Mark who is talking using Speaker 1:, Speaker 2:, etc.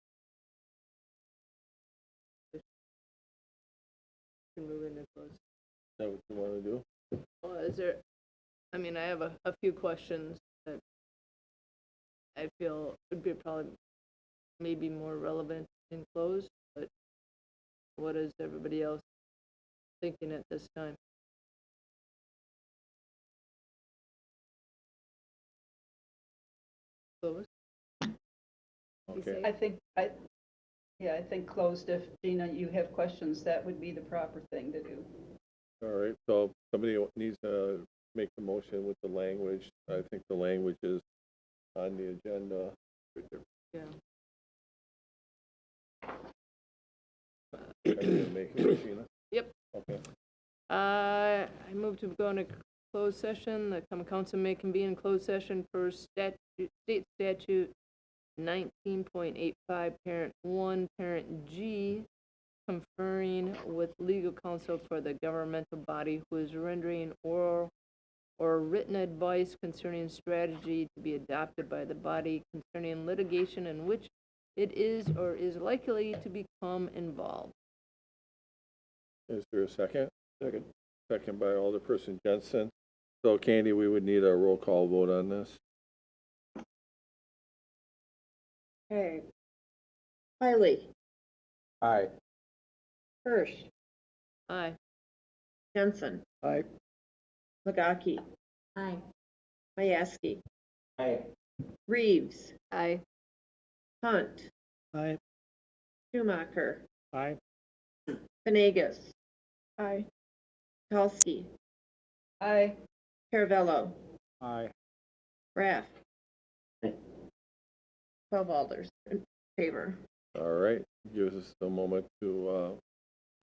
Speaker 1: can move into closed.
Speaker 2: that what you wanna do?
Speaker 1: Well, is there, I mean, I have a, a few questions that I feel would be probably maybe more relevant in closed, but what is everybody else thinking at this time? Closed?
Speaker 2: Okay,
Speaker 3: I think, I, yeah, I think closed, if, Gina, you have questions, that would be the proper thing to do.
Speaker 2: all right, so somebody needs to make the motion with the language, I think the language is on the agenda.
Speaker 1: Yeah.
Speaker 2: Everybody make it, Sheena?
Speaker 1: Yep.
Speaker 2: Okay,
Speaker 1: Uh, I move to go into closed session. The common council may convene in closed session per statute, state statute nineteen point eight five, parent one, parent G, conferring with legal counsel for the governmental body who is rendering oral or written advice concerning strategy to be adopted by the body concerning litigation in which it is or is likely to become involved.
Speaker 2: is there a second? Second. Second by Alderperson Jensen. So Candy, we would need a roll call vote on this.
Speaker 4: Okay. Wiley,
Speaker 5: Aye.
Speaker 4: Hirsch,
Speaker 1: Aye.
Speaker 4: Jensen,
Speaker 5: Aye.
Speaker 4: Magaki. Aye. Mayeski,
Speaker 5: Aye.
Speaker 4: Reeves,
Speaker 1: Aye.
Speaker 4: Hunt,
Speaker 5: Aye.
Speaker 4: Schumacher,
Speaker 5: Aye.
Speaker 4: Venegas,
Speaker 3: Aye.
Speaker 4: Kalski,
Speaker 3: Aye.
Speaker 4: Caravello,
Speaker 5: Aye.
Speaker 4: Raff.
Speaker 5: Aye.
Speaker 4: Twelve alders in favor.
Speaker 2: All right, gives us a moment to, uh,